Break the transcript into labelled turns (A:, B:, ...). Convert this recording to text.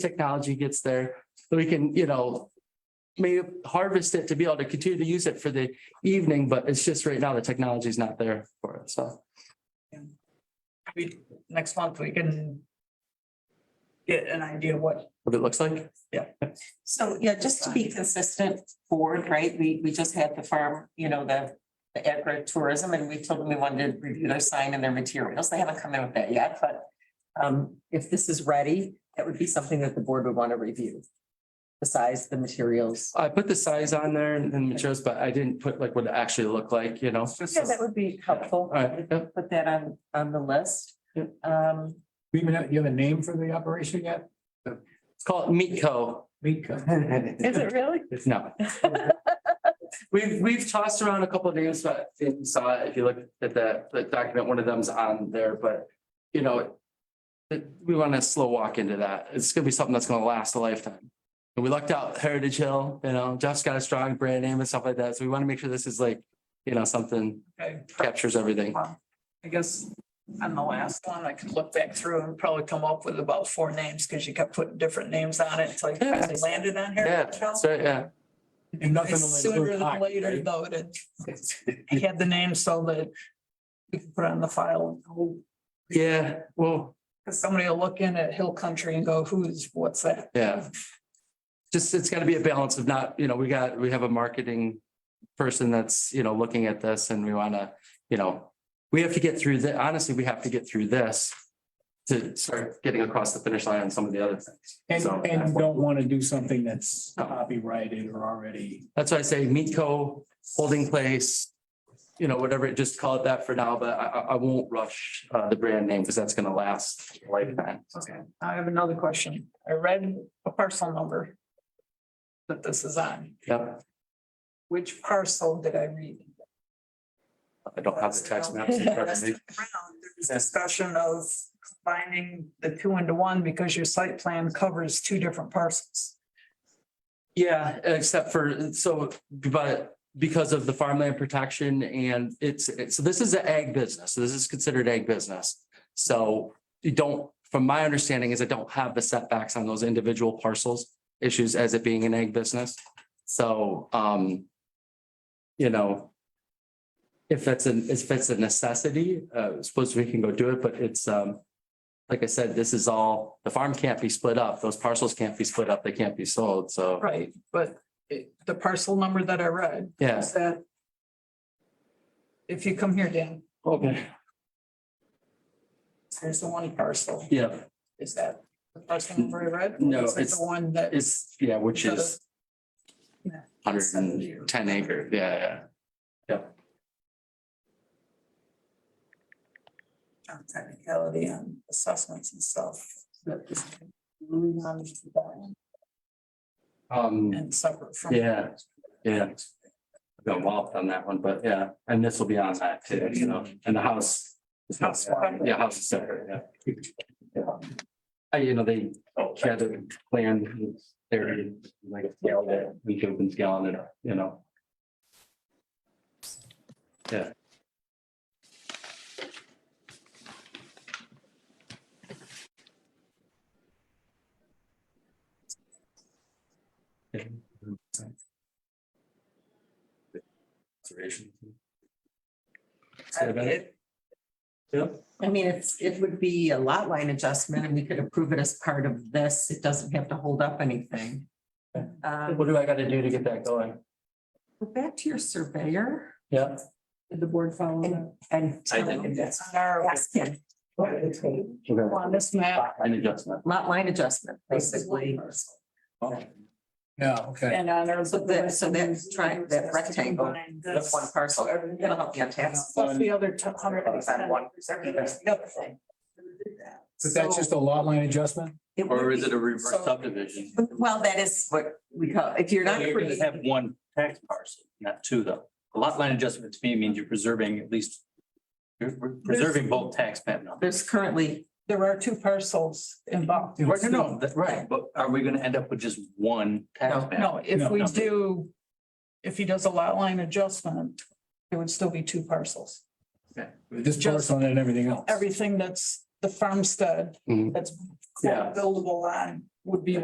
A: technology gets there, that we can, you know, maybe harvest it to be able to continue to use it for the evening, but it's just right now the technology is not there for it, so.
B: we, next month, we can get an idea of what,
A: What it looks like,
C: So, yeah, just to be consistent forward, right, we, we just had the farm, you know, the, the agritourism, and we told them we wanted to review their sign and their materials, they haven't come in with that yet, but um, if this is ready, that would be something that the board would want to review. The size, the materials.
A: I put the size on there and and materials, but I didn't put like what it actually looked like, you know.
C: Yeah, that would be helpful.
A: Alright, yep.
C: Put that on, on the list.
A: Yep.
C: Um,
D: We even have, you have a name for the operation yet?
A: It's called Meat Co.
D: Meat Co.
E: Is it really?
A: It's no. We've, we've tossed around a couple of names, but if you saw it, if you look at the, the document, one of them's on there, but, you know, it- we want to slow walk into that. It's gonna be something that's gonna last a lifetime. And we lucked out Heritage Hill, you know, Jeff's got a strong brand name and stuff like that, so we want to make sure this is like, you know, something
B: I
A: captures everything.
B: I guess, on the last one, I could look back through and probably come up with about four names, because you kept putting different names on it, until you finally landed on
A: Yeah,
B: Heritage Hill.
A: so, yeah,
D: And nothing will
B: Sooner
D: include
B: than
D: hockey,
B: later,
D: right?
B: though, it it had the name so that we could put it on the file,
A: yeah, well,
B: because somebody will look in at Hill Country and go, who's, what's that?
A: yeah. Just, it's gotta be a balance of not, you know, we got, we have a marketing person that's, you know, looking at this and we wanna, you know, we have to get through the, honestly, we have to get through this to start getting across the finish line on some of the other things.
D: And,
A: So
D: and you don't want to do something that's
A: No.
D: copyrighted or already.
A: that's why I say Meat Co, Holding Place, you know, whatever, just call it that for now, but I, I, I won't rush, uh, the brand name because that's gonna last a lifetime.
B: Okay, I have another question. I read a parcel number that this is on.
A: Yep,
B: Which parcel did I read?
A: I don't have the tax maps in front of
B: Last
A: me.
B: time around, there was Discussion of combining the two into one because your site plan covers two different parcels.
A: Yeah, except for, so, but because of the farmland protection and it's, it's, so this is an ag business. So This is considered ag business. So you don't, from my understanding is I don't have the setbacks on those individual parcels issues as it being an ag business. So, um, you know, if that's an, if it's a necessity, uh, I suppose we can go do it, but it's, um, like I said, this is all, the farm can't be split up. Those parcels can't be split up. They can't be sold. So.
B: Right, but it- the parcel number that I read
A: Yeah,
B: is that if you come here, Dan,
A: okay,
B: there's the one parcel.
A: yeah,
B: Is that the parcel number I read?
A: No,
B: Is it
A: it's-
B: The one that is
A: it's, yeah, which is.
B: Yeah.
A: Hundred and ten acre, yeah, yeah,
B: on technicality on assessments and stuff. that is really not just that,
A: um,
B: And separate from.
A: Yeah. yeah. I've Got walloped on that one, but yeah, and this will be on that too, you know, and the house. is not-
B: House one.
A: Yeah, house is separate, yeah. yeah. Uh, you know, they had to plan there, like, scale that we could open scale and, you know. Conservation. Say about it.
B: It-
C: I mean, it's, it would be a lot line adjustment, and we could approve it as part of this, it doesn't have to hold up anything. Um,
A: What do I gotta do to get that going?
C: Go back to your surveyor
A: Yeah.
B: Did the board follow that?
C: and
A: I
C: tell him
A: did.
C: that's,
B: On our,
C: ask him,
B: on this map
A: An adjustment.
C: lot line adjustment, basically.
D: Yeah, okay.
B: and on our.
C: So that- so that's tri- that rectangle, That's one parcel, that'll help you on tax.
B: Plus the other two hundred.
C: On one.
D: But that's just a lot line adjustment?
C: It would
F: Or is it a
B: So-
F: reverse subdivision?
C: be- Well, that is what we call, if you're not.
F: You're gonna
C: creating-
F: have one tax parcel, not two though. A lot line adjustment to me means you're preserving at least. You're pre- preserving both tax map numbers.
C: There's currently,
B: There are two parcels involved.
F: Right, no, no, that- right, but are we gonna end up with just one tax map?
B: No, if
D: No.
B: we do, if he does a lot line adjustment, there would still be two parcels.
D: This
B: Just-
D: parcel and everything else.
B: Everything that's the farmstead,
A: Mhm.
B: that's
A: Yeah.
B: buildable on would be